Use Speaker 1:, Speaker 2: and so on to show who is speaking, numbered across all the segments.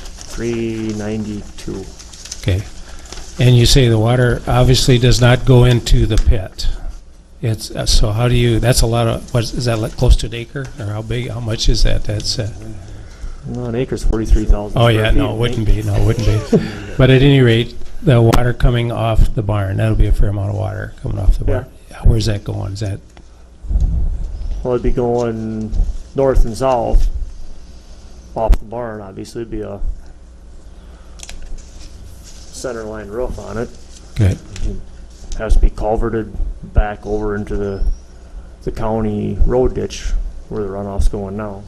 Speaker 1: three ninety-two.
Speaker 2: Okay. And you say the water obviously does not go into the pit. It's, uh, so how do you, that's a lot of, what, is that like close to an acre? Or how big, how much is that? That's, uh,
Speaker 1: No, an acre's forty-three thousand.
Speaker 2: oh yeah, no, it wouldn't be, no, it wouldn't be. But at any rate, the water coming off the barn, that'll be a fair amount of water coming off the barn. Where's that going? Is that,
Speaker 1: Well, it'd be going north and south off the barn, obviously, it'd be a center line roof on it.
Speaker 2: good,
Speaker 1: Has to be culverted back over into the, the county road ditch where the runoff's going now.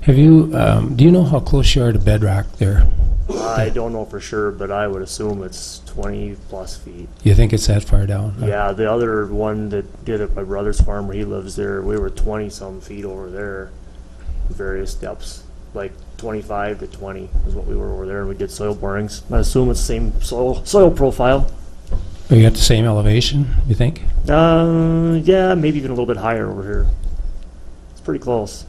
Speaker 2: Have you, um, do you know how close you are to bedrock there?
Speaker 1: I don't know for sure, but I would assume it's twenty-plus feet.
Speaker 2: You think it's that far down?
Speaker 1: Yeah, the other one that did it, my brother's farm where he lives there, we were twenty-some feet over there, various depths, like twenty-five to twenty is what we were over there, and we did soil borings. I assume it's same soil, soil profile.
Speaker 2: Are you at the same elevation, you think?
Speaker 1: Uh, yeah, maybe even a little bit higher over here. It's pretty close.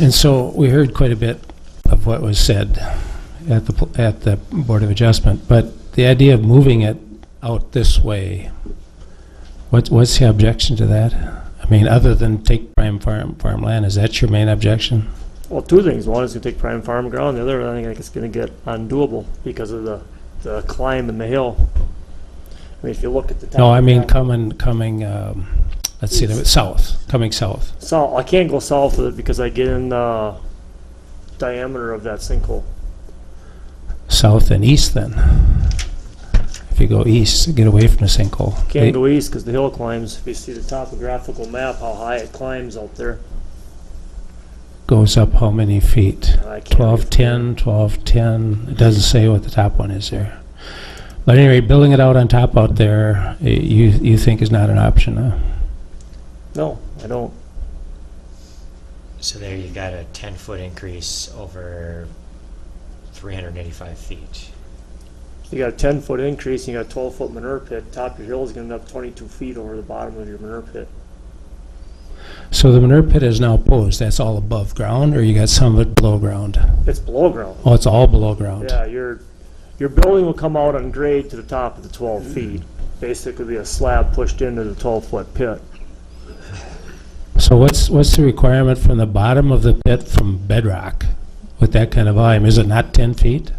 Speaker 2: And so we heard quite a bit of what was said at the, pl- at the Board of Adjustment, but the idea of moving it out this way, what, what's the objection to that? I mean, other than take prime farm, farmland, is that your main objection?
Speaker 1: Well, two things. One is gonna take prime farm ground, the other, I think it's gonna get undoable because of the, the climb in the hill. I mean, if you look at the top.
Speaker 2: No, I mean
Speaker 1: of-
Speaker 2: coming, coming, um, let's see, south, coming south.
Speaker 1: So I can't go south of it because I get in the diameter of that sinkhole.
Speaker 2: South and east then. If you go east, get away from the sinkhole.
Speaker 1: Can't
Speaker 2: They-
Speaker 1: go east because the hill climbs. If you see the topographical map, how high it climbs out there.
Speaker 2: Goes up how many feet?
Speaker 1: I can't read
Speaker 2: Twelve,
Speaker 1: from there.
Speaker 2: ten, twelve, ten. It doesn't say what the top one is there. But anyway, building it out on top out there, eh, you, you think is not an option, huh?
Speaker 1: No, I don't.
Speaker 3: So there you got a ten-foot increase over three hundred and eighty-five feet.
Speaker 1: You got a ten foot increase, and you got a twelve foot manure pit. Top of your hill is gonna end up twenty two feet over the bottom of your manure pit.
Speaker 2: So the manure pit is now posed. That's all above ground, or you got some of it below ground?
Speaker 1: It's below ground.
Speaker 2: Oh, it's all below ground?
Speaker 1: Yeah, your, your building will come out on grade to the top of the twelve feet.
Speaker 2: Mm-hmm.
Speaker 1: Basically be a slab pushed into the twelve foot pit.
Speaker 2: So what's, what's the requirement from the bottom of the pit from bedrock with that kind of volume? Is it not ten feet?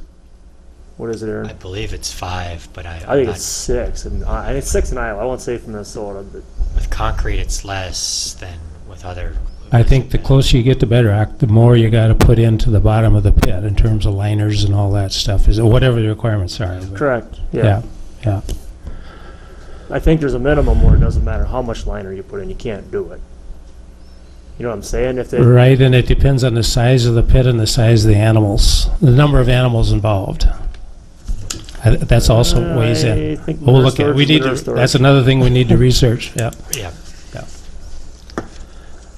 Speaker 1: What is it, Aaron?
Speaker 3: I believe it's five, but I,
Speaker 1: I
Speaker 3: I'm
Speaker 1: think it's
Speaker 3: not,
Speaker 1: six, and I, it's six in Iowa. I won't say from Minnesota, but
Speaker 3: with concrete, it's less than with other.
Speaker 2: I think the closer you get to bedrock, the more you gotta put into the bottom of the pit in terms of liners and all that stuff, is, whatever the requirements are. but-
Speaker 1: correct.
Speaker 2: Yeah,
Speaker 1: Yeah.
Speaker 2: yeah.
Speaker 1: I think there's a minimum where it doesn't matter how much liner you put in, you can't do it. You know what I'm saying? If they,
Speaker 2: Right, and it depends on the size of the pit and the size of the animals, the number of animals involved. I- That's also weighs in.
Speaker 1: I think manure
Speaker 2: We'll look at,
Speaker 1: storage
Speaker 2: we
Speaker 1: is
Speaker 2: need to,
Speaker 1: manure storage.
Speaker 2: that's another thing we need to research, yeah.
Speaker 3: Yeah,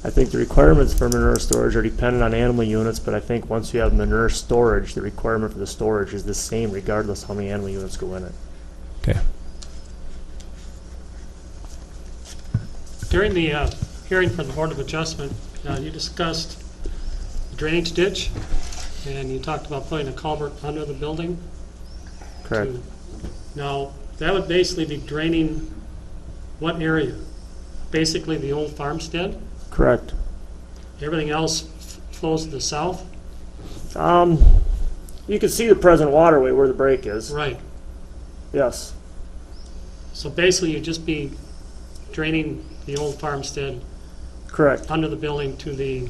Speaker 1: I think the requirements for manure storage are dependent on animal units, but I think once you have manure storage, the requirement for the storage is the same regardless how many animal units go in it.
Speaker 2: Okay.
Speaker 4: During the uh, hearing for the Board of Adjustment, uh, you discussed the drainage ditch, and you talked about putting a culvert under the building.
Speaker 1: Correct.
Speaker 4: to- Now, that would basically be draining what area? Basically, the old farmstead?
Speaker 1: Correct.
Speaker 4: Everything else f- flows to the south?
Speaker 1: Um, you can see the present waterway where the break is.
Speaker 4: Right.
Speaker 1: Yes.
Speaker 4: So basically, you'd just be draining the old farmstead
Speaker 1: Correct.
Speaker 4: under the building to the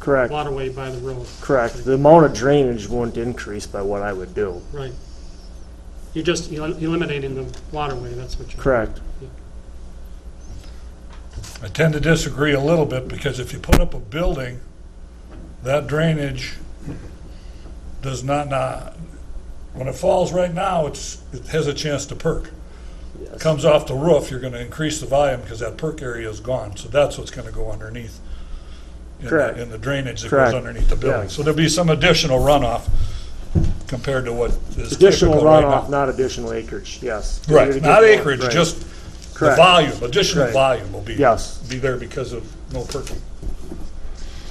Speaker 1: Correct.
Speaker 4: waterway by the road.
Speaker 1: Correct. The amount of drainage won't increase by what I would do.
Speaker 4: Right. You're just el- eliminating the waterway, that's what you're...
Speaker 1: Correct.
Speaker 5: I tend to disagree a little bit, because if you put up a building, that drainage does not, not, when it falls right now, it's, it has a chance to perk. Comes off the roof, you're gonna increase the volume, because that perk area is gone, so that's what's gonna go underneath. in the-
Speaker 1: Correct.
Speaker 5: In the drainage that goes
Speaker 1: Correct.
Speaker 5: underneath the building.
Speaker 1: Yeah.
Speaker 5: So there'll be some additional runoff compared to what is
Speaker 1: Additional
Speaker 5: typical right
Speaker 1: runoff,
Speaker 5: now.
Speaker 1: not additional acreage, yes.
Speaker 5: Right, not acreage,
Speaker 1: Right.
Speaker 5: just the
Speaker 1: Correct.
Speaker 5: volume, additional
Speaker 1: Right.
Speaker 5: volume will be.
Speaker 1: Yes.
Speaker 5: Be there because of no perking.